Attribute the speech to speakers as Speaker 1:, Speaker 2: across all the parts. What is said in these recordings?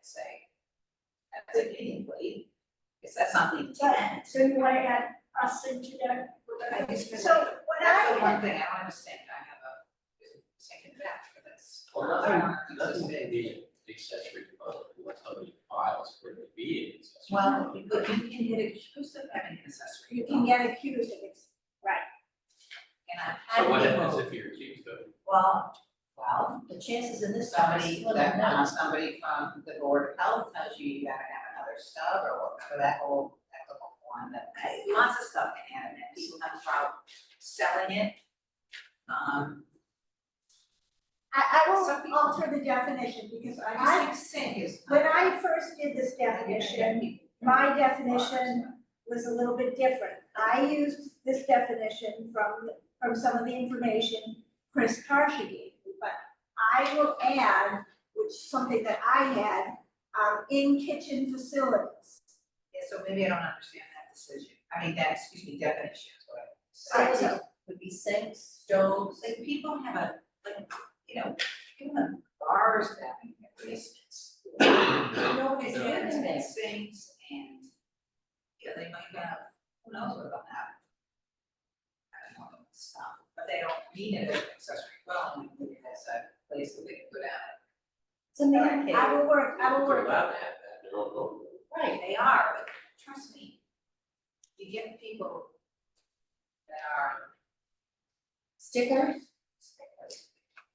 Speaker 1: say. That's a meeting, please, because that's not the intent.
Speaker 2: So you wanna add us into that?
Speaker 1: I just-
Speaker 2: So what
Speaker 1: That's
Speaker 2: I
Speaker 1: the
Speaker 2: have,
Speaker 1: one thing I don't understand, I have a second batch for this.
Speaker 3: Well, nothing, nothing may be accessory to other, what somebody files for it to be an accessory.
Speaker 1: Well, but you can get accused of having an accessory.
Speaker 2: you can get accused of it, right?
Speaker 1: And I've had
Speaker 3: So what happens
Speaker 1: people,
Speaker 3: if you're accused of?
Speaker 1: well, well, the chances in this somebody, that now somebody from the board of health tells you you gotta have another stub or whatever that whole, that little one that lots of stuff in hand and people have trouble selling it. Um,
Speaker 2: I, I
Speaker 1: Some
Speaker 2: will
Speaker 1: people-
Speaker 2: alter the definition because
Speaker 1: I just
Speaker 2: I,
Speaker 1: think sink is.
Speaker 2: when I first did this definition, my definition was a little bit different. I used this definition from, from some of the information Chris Karshi gave me, but I will add, which is something that I had, um, in kitchen facilities.
Speaker 1: Yeah, so maybe I don't understand that decision, I mean, that, excuse me, definition, is what I.
Speaker 4: So those are- would be sinks, stoves,
Speaker 1: Like people have a, like, you know, people have bars down in their basements. Nobody's
Speaker 4: Yeah.
Speaker 1: getting their things and, you know, they might have, who knows what about that? I don't know, stuff, but they don't need it as an accessory dwelling, maybe that's a place that they can go down.
Speaker 4: it's a man cave.
Speaker 2: I will work, I will
Speaker 3: They're
Speaker 2: work.
Speaker 3: allowed to have that, they're all over.
Speaker 1: Right, they are, but trust me, you get people that are
Speaker 4: Stickers,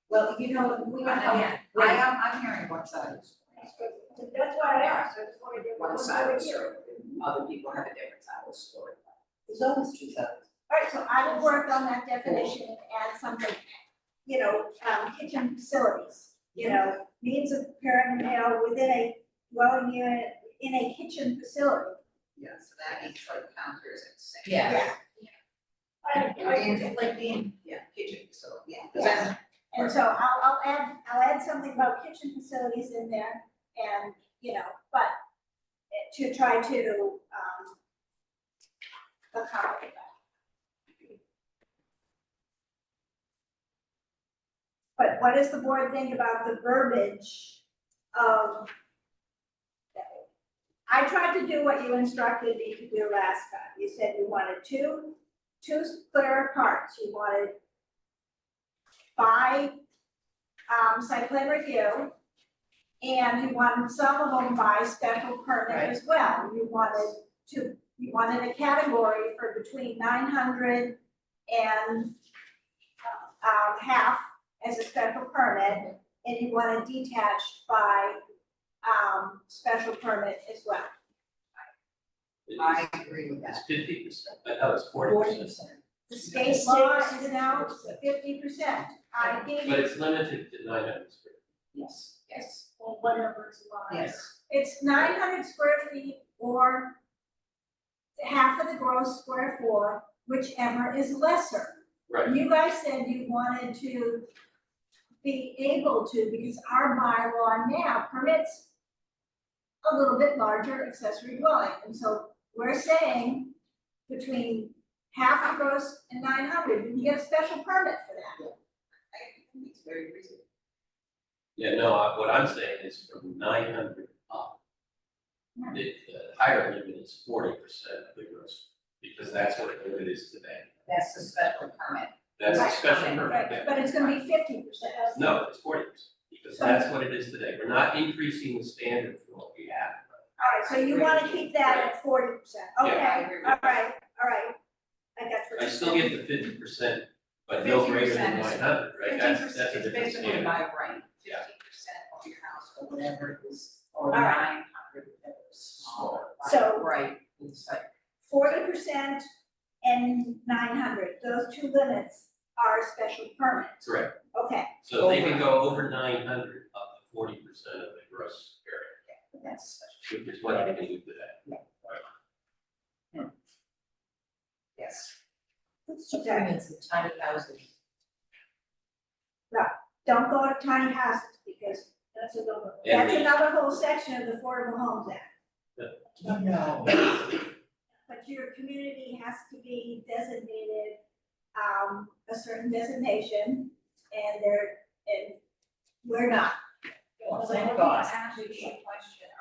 Speaker 4: well, you know, we don't
Speaker 1: I
Speaker 4: have,
Speaker 1: am, I am, I'm hearing one side.
Speaker 2: That's why I asked, I just wanted to.
Speaker 1: One side of the story, other people have a different side of the story.
Speaker 4: there's always two sides.
Speaker 2: All right, so I will work on that definition and add something, you know, um, kitchen facilities. You know, means of preparing a meal within a dwelling unit, in a kitchen facility.
Speaker 1: Yeah, so that means like counters and sinks.
Speaker 4: Yeah.
Speaker 1: And like being, yeah, kitchen, so, yeah.
Speaker 2: Yeah. And so I'll, I'll add, I'll add something about kitchen facilities in there and, you know, but to try to, um, accommodate that. But what does the board think about the verbiage of Um, I tried to do what you instructed me to do last time. You said you wanted two, two clear parts. You wanted by um site plan review. And you wanted some of them by special permit as well, you wanted to, you wanted a category for between nine hundred and uh, um half as a special permit, and you wanted detached by um special permit as well.
Speaker 1: I agree with
Speaker 3: It's
Speaker 1: that.
Speaker 3: fifty percent, but no, it's forty percent,
Speaker 2: The state law is now fifty percent, I think.
Speaker 3: but it's limited to nine hundred square.
Speaker 1: Yes. Yes.
Speaker 2: Or whatever is law.
Speaker 1: Yes.
Speaker 2: It's nine hundred square feet or half of the gross square floor, whichever is lesser.
Speaker 3: Right,
Speaker 2: You guys said you wanted to be able to, because our bylaw now permits a little bit larger accessory dwelling, and so we're saying between half of gross and nine hundred, you can get a special permit for that.
Speaker 1: I think it's very reasonable.
Speaker 3: yeah, no, I- what I'm saying is from nine hundred up.
Speaker 1: Hmm.
Speaker 3: The, the higher limit is forty percent of the gross, because that's what the limit is today.
Speaker 1: That's the special permit.
Speaker 3: That's a
Speaker 1: Right,
Speaker 3: special
Speaker 1: okay,
Speaker 3: permit, yeah.
Speaker 2: But it's gonna be fifty percent.
Speaker 3: No, it's forty percent, because that's what it is today. We're not increasing the standard for what we have.
Speaker 2: All right, so you wanna keep that at forty percent,
Speaker 3: Yeah.
Speaker 1: I
Speaker 2: okay,
Speaker 1: agree with
Speaker 2: all
Speaker 1: that.
Speaker 2: right, all right. I got what
Speaker 3: I
Speaker 2: you're
Speaker 3: still
Speaker 2: saying.
Speaker 3: get the fifty percent, but no greater than
Speaker 1: 50% is-
Speaker 3: nine hundred, right?
Speaker 1: Fifteen
Speaker 3: That's, that's
Speaker 1: percent
Speaker 3: a
Speaker 1: is
Speaker 3: different
Speaker 1: basically
Speaker 3: standard.
Speaker 1: by right,
Speaker 3: Yeah.
Speaker 1: fifteen percent of your house or whatever it is, or
Speaker 2: All right.
Speaker 1: nine hundred, whatever is smaller. by
Speaker 2: So-
Speaker 1: Right, it's like,
Speaker 2: forty percent and nine hundred, those two limits are special permit,
Speaker 3: Correct.
Speaker 2: okay,
Speaker 3: So they can go over nine hundred up to forty percent of the gross
Speaker 1: that's,
Speaker 3: area, which is what I can do today.
Speaker 1: yes.
Speaker 4: Let's just bring in some tiny houses.
Speaker 2: don't go to tiny houses, because that's another,
Speaker 3: And
Speaker 2: that's
Speaker 3: we-
Speaker 2: another whole section of the Affordable Homes Act.
Speaker 4: No.
Speaker 2: But your community has to be designated, um, a certain designation, and they're, and we're not.
Speaker 1: Well,
Speaker 2: Well, I
Speaker 1: thank
Speaker 2: think
Speaker 1: God.
Speaker 2: Actually, a question